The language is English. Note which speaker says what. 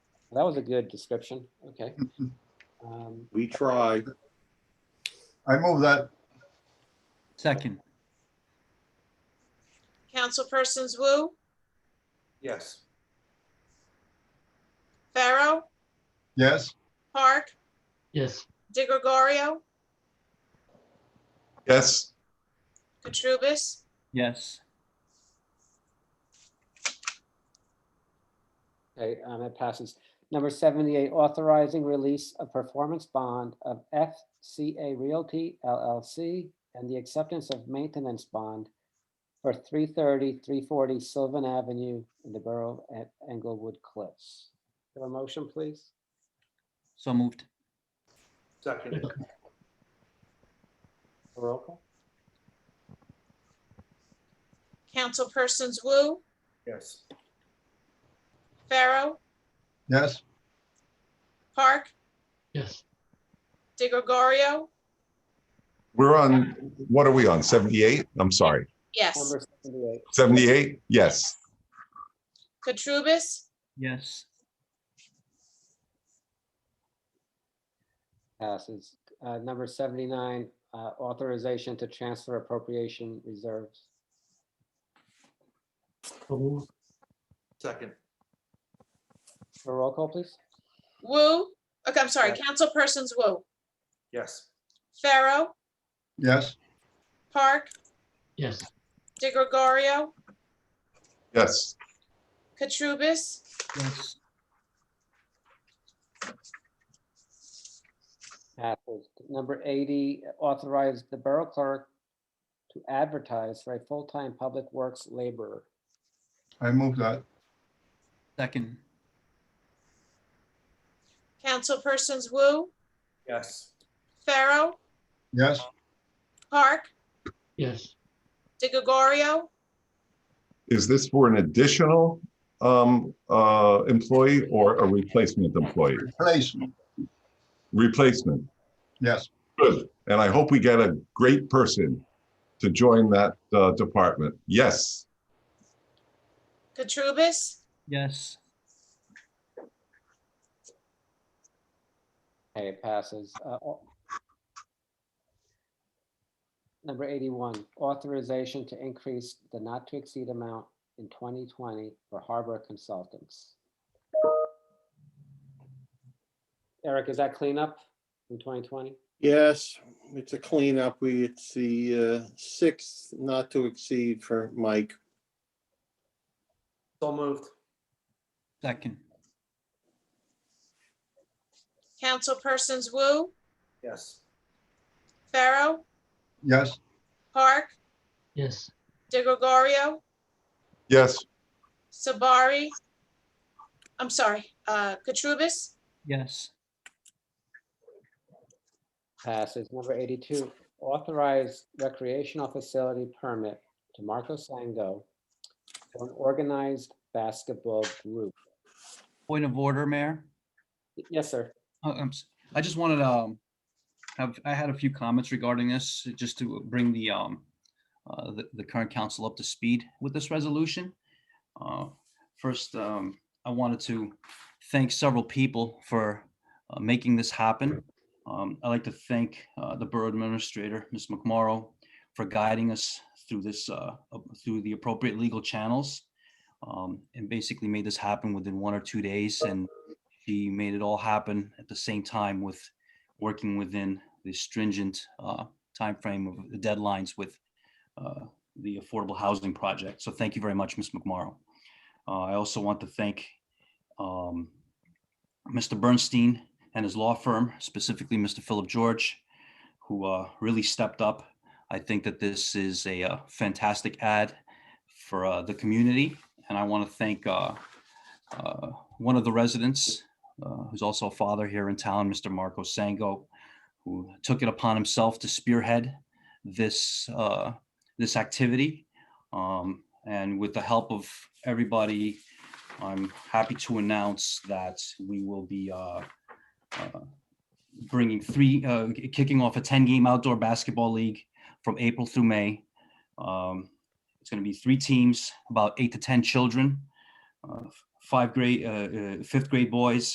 Speaker 1: That was a good description. Okay. Um,
Speaker 2: We try.
Speaker 3: I move that,
Speaker 4: Second,
Speaker 5: Councilpersons Wu,
Speaker 2: Yes.
Speaker 5: Pharaoh,
Speaker 3: yes?
Speaker 5: Park,
Speaker 6: yes,
Speaker 5: De Gregorio,
Speaker 3: Yes.
Speaker 5: Katrubis,
Speaker 4: yes,
Speaker 1: Okay, um, that passes. Number seventy-eight, authorizing release of performance bond of FCA Realty LLC and the acceptance of maintenance bond for 330, 340 Sylvan Avenue in the Borough at Englewood Cliffs. Have a motion, please?
Speaker 4: so moved,
Speaker 2: Seconded.
Speaker 1: Roll call?
Speaker 5: Councilpersons Wu,
Speaker 2: Yes.
Speaker 5: Pharaoh,
Speaker 3: Yes,
Speaker 5: Park,
Speaker 6: yes,
Speaker 5: De Gregorio,
Speaker 7: We're on, what are we on, 78? I'm sorry,
Speaker 5: yes,
Speaker 1: Number seventy-eight,
Speaker 7: 78? Yes,
Speaker 5: Katrubis,
Speaker 4: yes,
Speaker 1: passes. Uh, number seventy-nine, uh, authorization to transfer appropriation reserves.
Speaker 6: so move,
Speaker 2: Second.
Speaker 1: Roll call, please?
Speaker 5: Wu, okay, I'm sorry,
Speaker 1: Yes.
Speaker 5: Councilpersons Wu,
Speaker 2: Yes.
Speaker 5: Pharaoh,
Speaker 3: yes,
Speaker 5: Park,
Speaker 6: yes,
Speaker 5: De Gregorio,
Speaker 7: yes,
Speaker 5: Katrubis,
Speaker 4: yes,
Speaker 1: Passes. Number eighty, authorize the borough clerk to advertise for a full-time public works laborer.
Speaker 3: I move that,
Speaker 4: second,
Speaker 5: Councilpersons Wu,
Speaker 2: Yes.
Speaker 5: Pharaoh,
Speaker 3: yes,
Speaker 5: Park,
Speaker 6: yes,
Speaker 5: De Gregorio,
Speaker 7: is this for an additional um, uh, employee or a replacement employee?
Speaker 3: replacement,
Speaker 7: Replacement,
Speaker 3: yes,
Speaker 7: good, and I hope we get a great person to join that uh, department. Yes,
Speaker 5: Katrubis,
Speaker 4: yes,
Speaker 1: Okay, it passes. Uh, au- Number eighty-one, authorization to increase the not-to-exceed amount in twenty twenty for harbor consultants. Eric, is that cleanup in twenty twenty?
Speaker 8: Yes, it's a cleanup. We, it's the uh, sixth not to exceed for Mike.
Speaker 2: So moved.
Speaker 4: second,
Speaker 5: Councilpersons Wu,
Speaker 2: Yes.
Speaker 5: Pharaoh,
Speaker 3: yes,
Speaker 5: Park,
Speaker 6: yes,
Speaker 5: De Gregorio,
Speaker 7: yes,
Speaker 5: Sabari, I'm sorry, uh, Katrubis,
Speaker 4: yes,
Speaker 1: Passes. Number eighty-two, authorize recreational facility permit to Marco Sango for an organized basketball group.
Speaker 4: point of order, Mayor.
Speaker 1: Y- Yes, sir.
Speaker 4: Oh, I'm, s- I just wanted to, um, have, I had a few comments regarding this, just to bring the, um, uh, the, the current council up to speed with this resolution. Uh, First, um, I wanted to thank several people for, uh, making this happen. Um, I'd like to thank, uh, the borough administrator, Ms. McMorrow, for guiding us through this, uh, up- through the appropriate legal channels. Um, and basically made this happen within one or two days and she made it all happen at the same time with working within the stringent uh, timeframe of the deadlines with uh, the affordable housing project. So thank you very much, Ms. McMorrow. Uh, I also want to thank um, Mr. Bernstein and his law firm, specifically Mr. Philip George, who uh, really stepped up. I think that this is a uh, fantastic ad for uh, the community. And I want to thank uh, uh, one of the residents, uh, who's also a father here in town, Mr. Marco Sango, who took it upon himself to spearhead this, uh, this activity. Um, And with the help of everybody, I'm happy to announce that we will be uh, uh, bringing three, uh, kicking off a 10-game outdoor basketball league from April through May. Um, It's going to be three teams, about eight to 10 children uh, five grade, uh, uh, fifth grade boys,